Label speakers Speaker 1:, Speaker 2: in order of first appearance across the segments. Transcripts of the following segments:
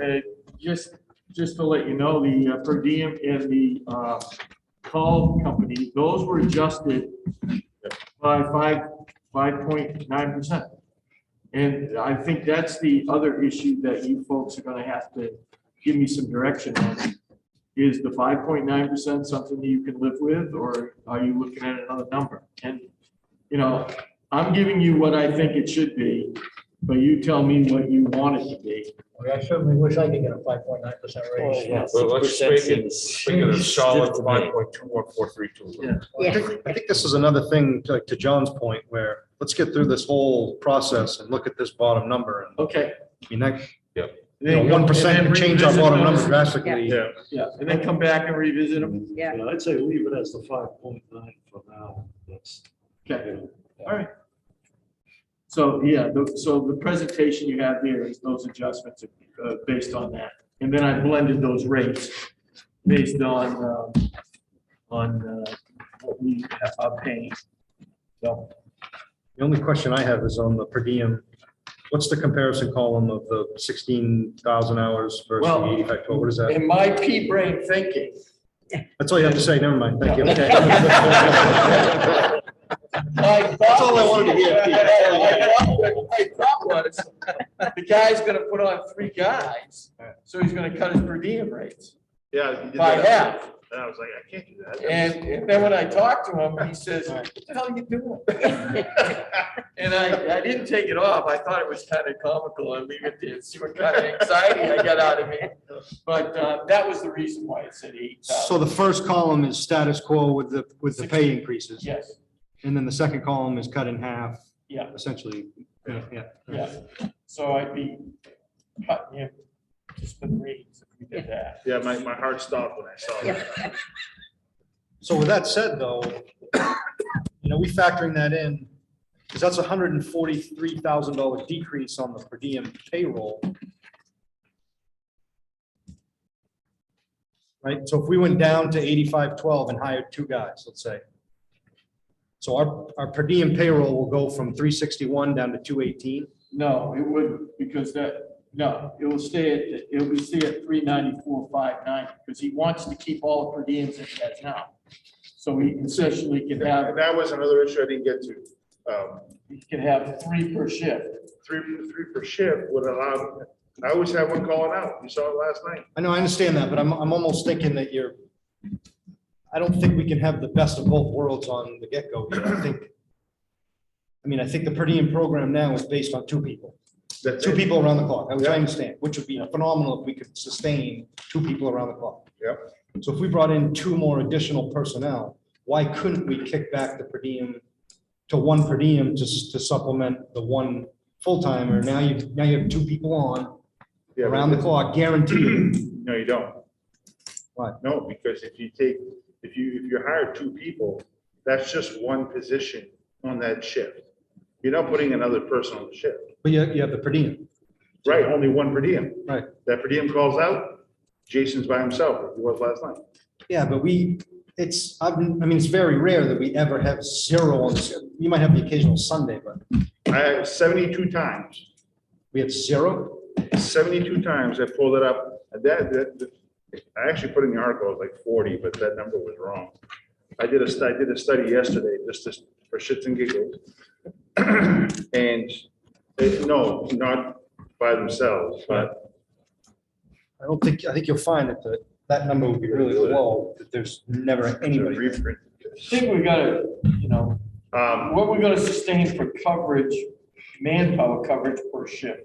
Speaker 1: uh, just, just to let you know, the uh, per diem and the uh, call company, those were adjusted by five, five point nine percent. And I think that's the other issue that you folks are gonna have to give me some direction on. Is the five point nine percent something that you can live with, or are you looking at another number? And, you know, I'm giving you what I think it should be, but you tell me what you want it to be.
Speaker 2: I mean, I certainly wish I could get a five point nine percent raise.
Speaker 3: Well, let's make it- Think of a solid five point two one four three
Speaker 1: Yeah.
Speaker 3: two.
Speaker 4: Yeah.
Speaker 5: I think, I think this is another thing, to to John's point, where let's get through this whole process and look at this bottom number. And,
Speaker 1: Okay.
Speaker 5: I mean, that,
Speaker 1: Then-
Speaker 5: one percent
Speaker 1: and then
Speaker 5: can change our
Speaker 1: revisit
Speaker 5: bottom
Speaker 1: those.
Speaker 5: number drastically.
Speaker 3: Yeah.
Speaker 1: Yeah, and then come back and revisit them.
Speaker 4: Yeah.
Speaker 6: I'd say leave it as the five point nine for now. That's,
Speaker 1: Okay, all right. So, yeah, tho- so the presentation you have here is those adjustments uh, based on that. And then I blended those rates based on, um, on uh, what we
Speaker 6: uh,
Speaker 1: are paying. So,
Speaker 5: The only question I have is on the per diem. What's the comparison column of the sixteen thousand hours versus the
Speaker 1: Well-
Speaker 5: eighty-five twelve? What is that?
Speaker 1: in my pea brain thinking,
Speaker 5: That's all you have to say. Never mind. Thank you.
Speaker 1: Okay. That's all I wanted to hear. My thought was, the guy's gonna put on three guys, so he's gonna cut his per diem rates
Speaker 3: Yeah.
Speaker 1: by half.
Speaker 3: And I was like, I can't do that.
Speaker 1: And and then when I talked to him, he says, what the hell are you doing? And I, I didn't take it off. I thought it was kind of comical and leave it there, see what kind of anxiety I got out of it. But uh, that was the reason why it said eight
Speaker 4: So
Speaker 1: thousand.
Speaker 4: the first column is status quo with the, with the pay increases,
Speaker 1: Yes,
Speaker 4: and then the second column is cut in half,
Speaker 1: yeah,
Speaker 4: essentially. Yeah, yeah.
Speaker 1: yeah. So I'd be cutting him just for the reasons if we did that.
Speaker 3: Yeah, my, my heart stopped when I saw that.
Speaker 5: So with that said, though, you know, we factoring that in, because that's a hundred and forty-three thousand dollar decrease on the per diem payroll. Right, so if we went down to eighty-five twelve and hired two guys, let's say. So our, our per diem payroll will go from three sixty-one down to two eighteen.
Speaker 1: No, it wouldn't, because that, no, it will stay at, it will stay at three ninety-four, five ninety, because he wants to keep all the per diems that he has now. So he essentially can have,
Speaker 3: And that was another issue I didn't get to. Um,
Speaker 1: he can have three per shift.
Speaker 3: three, three per shift would allow, I always have one calling out. You saw it last night.
Speaker 5: I know, I understand that, but I'm, I'm almost thinking that you're, I don't think we can have the best of both worlds on the get-go here, I think. I mean, I think the per diem program now is based on two people,
Speaker 3: That's
Speaker 5: two
Speaker 3: it.
Speaker 5: people around the clock, which I understand, which would be phenomenal if we could sustain two people around the clock.
Speaker 3: Yep.
Speaker 5: So if we brought in two more additional personnel, why couldn't we kick back the per diem to one per diem just to supplement the one full-timer? Now you, now you have two people on,
Speaker 3: Yeah, but-
Speaker 5: around the clock, guaranteed.
Speaker 3: No, you don't.
Speaker 5: Why?
Speaker 3: No, because if you take, if you, if you hire two people, that's just one position on that shift. You're not putting another person on the shift,
Speaker 5: But you, you have the per diem.
Speaker 3: right? Only one per diem.
Speaker 5: Right.
Speaker 3: That per diem calls out, Jason's by himself, like he was last night.
Speaker 5: Yeah, but we, it's, I've, I mean, it's very rare that we ever have zero on this. You might have the occasional Sunday, but
Speaker 3: I, seventy-two times,
Speaker 5: we have zero.
Speaker 3: seventy-two times I pulled it up. And That, that, that- I actually put in the article, it was like forty, but that number was wrong. I did a, stu- I did a study yesterday, just this, for shits and giggles. And, it- no, not by themselves, but
Speaker 5: I don't think, I think you'll find that the, that number would be really low, that there's never
Speaker 3: it's a
Speaker 5: anybody.
Speaker 3: reprint.
Speaker 1: I think we gotta, you know,
Speaker 3: Um,
Speaker 1: what we're gonna sustain for coverage, manpower coverage per shift.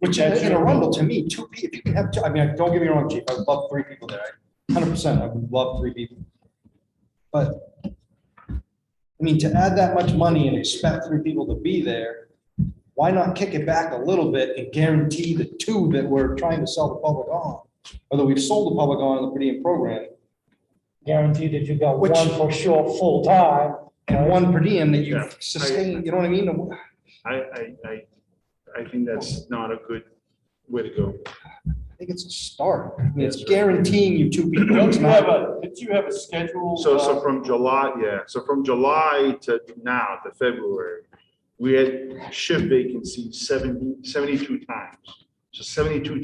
Speaker 5: Which in in a rumble, to me, two people, if you can have two, I mean, don't get me wrong, chief, I would love three people there. Hundred percent, I would love three people. But I mean, to add that much money and expect three people to be there, why not kick it back a little bit and guarantee the two that we're trying to sell the public on? Although we've sold the public on in the per diem program
Speaker 2: Guarantee that you got
Speaker 5: Which-
Speaker 2: one for sure, full time.
Speaker 5: and one per diem that you
Speaker 3: Yeah, I-
Speaker 5: sustain, you know what I mean?
Speaker 3: I, I, I, I think that's not a good way to go.
Speaker 5: I think it's a start. I mean, it's
Speaker 3: That's right.
Speaker 5: guaranteeing you two people.
Speaker 1: Don't
Speaker 5: It's
Speaker 1: you
Speaker 5: not-
Speaker 1: have a, don't you have a schedule?
Speaker 3: So,
Speaker 1: uh,
Speaker 3: so from July, yeah, so from July to now, to February, we had shift vacancy 70 72 times. So seventy-two